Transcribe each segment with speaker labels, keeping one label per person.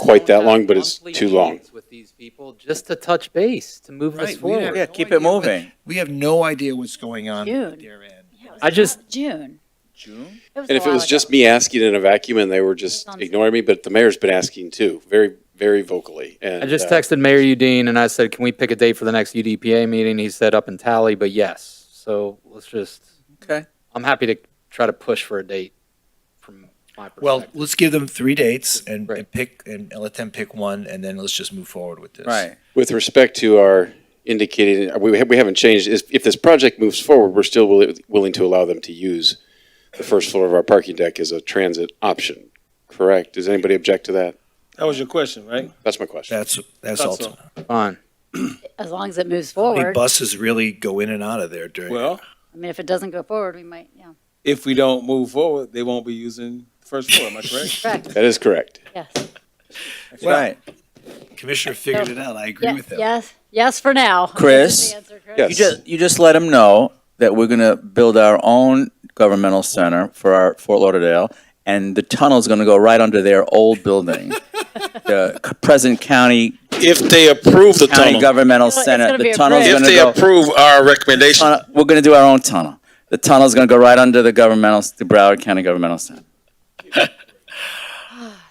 Speaker 1: quite that
Speaker 2: have
Speaker 1: long, but it's
Speaker 2: monthly
Speaker 1: too long.
Speaker 2: meetings With these people, just to touch base, to move this
Speaker 3: Right, we have-
Speaker 2: forward.
Speaker 4: Yeah, keep it moving.
Speaker 3: We have no idea what's going on at
Speaker 5: Dude.
Speaker 3: their end.
Speaker 2: I just-
Speaker 5: June.
Speaker 3: June?
Speaker 1: And if it was just me asking in a vacuum and they were just
Speaker 5: Sounds-
Speaker 1: ignoring me, but the mayor's been asking too, very, very vocally. uh,
Speaker 2: I just texted Mayor Udine and I said, can we pick a date for the next UDPA meeting? He said up in Tally, but yes. So let's just,
Speaker 4: Okay.
Speaker 2: I'm happy to try to push for a date from my
Speaker 3: Well,
Speaker 2: perspective.
Speaker 3: let's give them three dates and,
Speaker 2: Right.
Speaker 3: and pick and let them pick one, and then let's just move forward with this.
Speaker 4: Right.
Speaker 1: With respect to our indicated, we, ha- we haven't changed, is if this project moves forward, we're still willi- willing to allow them to use the first floor of our parking deck as a transit option, correct? Does anybody object to that?
Speaker 6: That was your question, right?
Speaker 1: That's my question.
Speaker 3: That's that's
Speaker 6: That's
Speaker 3: ultimate.
Speaker 2: Fine.
Speaker 5: As long as it moves
Speaker 3: How many
Speaker 5: forward.
Speaker 3: buses really go in and out of there during?
Speaker 6: Well,
Speaker 5: I mean, if it doesn't go forward, we might, yeah.
Speaker 6: if we don't move forward, they won't be using the first floor, am I correct?
Speaker 5: Correct,
Speaker 1: That is correct.
Speaker 5: yes.
Speaker 4: Right.
Speaker 3: Commissioner figured it out. I agree
Speaker 5: Ye-
Speaker 3: with him.
Speaker 5: Yes, yes for now.
Speaker 4: Chris?
Speaker 5: That's the answer, Chris.
Speaker 1: Yes.
Speaker 4: You just you just let them know that we're gonna build our own governmental center for our Fort Lauderdale, and the tunnel's gonna go right under their old building, the c- present county
Speaker 7: If they approve the
Speaker 4: county
Speaker 7: tunnel,
Speaker 4: governmental
Speaker 5: It's gonna
Speaker 4: center.
Speaker 5: be
Speaker 4: The
Speaker 5: a
Speaker 4: tunnel's
Speaker 5: bridge.
Speaker 7: if
Speaker 4: gonna
Speaker 7: they
Speaker 4: go.
Speaker 7: approve our recommendation,
Speaker 4: tunnel- We're gonna do our own tunnel. The tunnel's gonna go right under the governmental, the Broward County Governmental Center.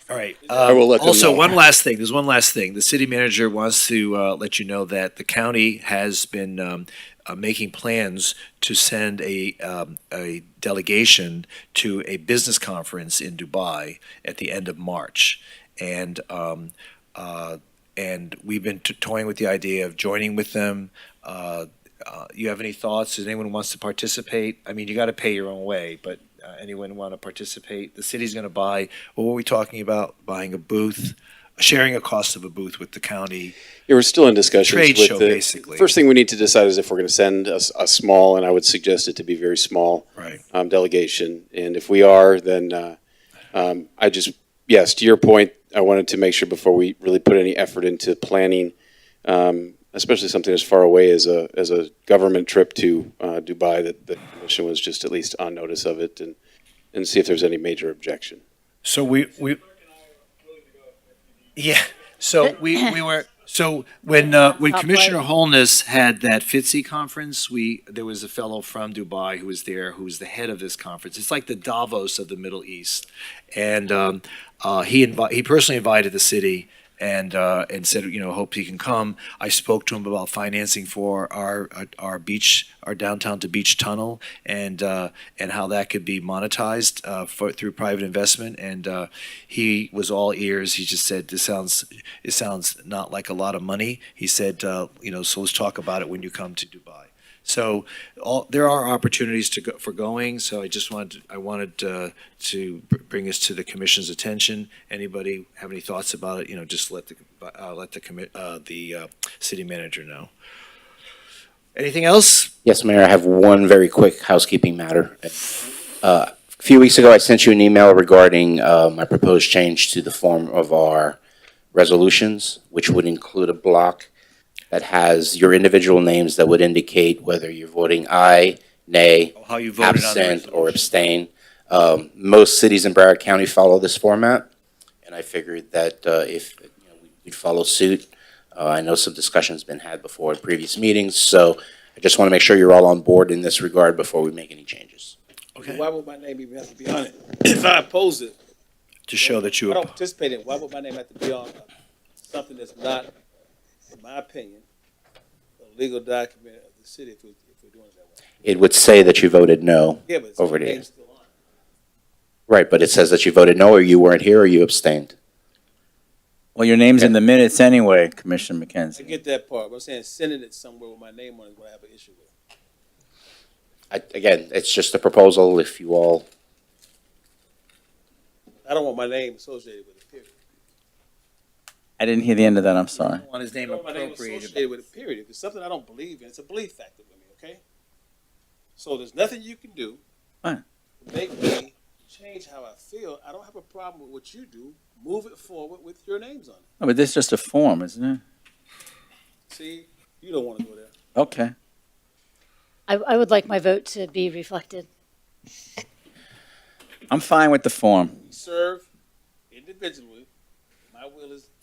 Speaker 3: All right. um,
Speaker 1: I will let them
Speaker 3: also,
Speaker 1: know.
Speaker 3: one last thing. There's one last thing. The city manager wants to uh, let you know that the county has been um, uh, making plans to send a um, a delegation to a business conference in Dubai at the end of March, and um, uh, and we've been t- toying with the idea of joining with them. Uh, uh, you have any thoughts? Does anyone wants to participate? I mean, you got to pay your own way, but uh, anyone want to participate? The city's going to buy. Well, what are we talking about? Buying a booth, sharing a cost of a booth with the county.
Speaker 1: Yeah, we're still in discussions
Speaker 3: Trade
Speaker 1: with
Speaker 3: show,
Speaker 1: the-
Speaker 3: basically.
Speaker 1: First thing we need to decide is if we're going to send a, s- a small, and I would suggest it to be very small,
Speaker 3: Right.
Speaker 1: um, delegation. And if we are, then uh, um, I just yes, to your point, I wanted to make sure before we really put any effort into planning, um, especially something as far away as a as a government trip to uh, Dubai, that the commission was just at least on notice of it and and see if there's any major objection.
Speaker 3: So we we. Yeah. So we, we were so when uh, when
Speaker 5: Top
Speaker 3: Commissioner
Speaker 5: right.
Speaker 3: Holness had that FITSE conference, we there was a fellow from Dubai who was there who was the head of this conference. It's like the Davos of the Middle East, and um, uh, he invi- he personally invited the city. And, uh, and said, you know, hope he can come. I spoke to him about financing for our, our, our beach, our downtown to beach tunnel, and uh, and how that could be monetized uh, for, through private investment. And uh, he was all ears. He just said, "This sounds it sounds not like a lot of money." He said, uh, "You know, so let's talk about it when you come to Dubai." So all, there are opportunities to go, for going. So I just wanted I wanted uh, to br- bring this to the commission's attention. Anybody have any thoughts about it? You know, just let the uh, let the commit uh, the uh, city manager know. Anything else?
Speaker 8: Yes, Mayor, I have one very quick housekeeping matter. Uh, A few weeks ago, I sent you an email regarding uh, my proposed change to the form of our resolutions, which would include a block that has your individual names that would indicate whether you're voting aye, nay,
Speaker 3: How you voted on the
Speaker 8: absent, or
Speaker 3: resolution.
Speaker 8: abstain. Um, Most cities in Broward County follow this format, and I figured that uh, if, you know, we'd follow suit. Uh, I know some discussion's been had before in previous meetings, so I just want to make sure you're all on board in this regard before we make any changes.
Speaker 3: Okay.
Speaker 6: Why would my name even have to be on it? If I oppose it,
Speaker 3: To show that you
Speaker 6: I don't participate in, it, why would my name have to be on something that's not, in my opinion, a legal document of the city if we- if we're doing it that way?
Speaker 8: It would say that you voted no.
Speaker 6: Yeah, but it's-
Speaker 8: Over there.
Speaker 6: it's still on.
Speaker 8: Right, but it says that you voted no, or you weren't here, or you abstained.
Speaker 4: Well, your name's in the minutes anyway, Commissioner
Speaker 6: I
Speaker 4: McKenzie.
Speaker 6: get that part, but I'm saying sending it somewhere with my name on it is what I have an issue with.
Speaker 8: I- Again, it's just a proposal, if you all,
Speaker 6: I don't want my name associated with it, period.
Speaker 4: I didn't hear the end of that. I'm sorry.
Speaker 3: want his
Speaker 6: I
Speaker 3: name
Speaker 6: don't want my name associated with it, period. If it's something I don't believe in, it's a belief factor with me, okay? So there's nothing you can do
Speaker 4: Fine.
Speaker 6: to make me change how I feel. I don't have a problem with what you do. Move it forward with your names on it.
Speaker 4: No, but this is just a form, isn't it?
Speaker 6: See, you don't want to go there.
Speaker 4: Okay.
Speaker 5: I, I would like my vote to be reflected.
Speaker 4: I'm fine with the form.
Speaker 6: We serve individually. My will is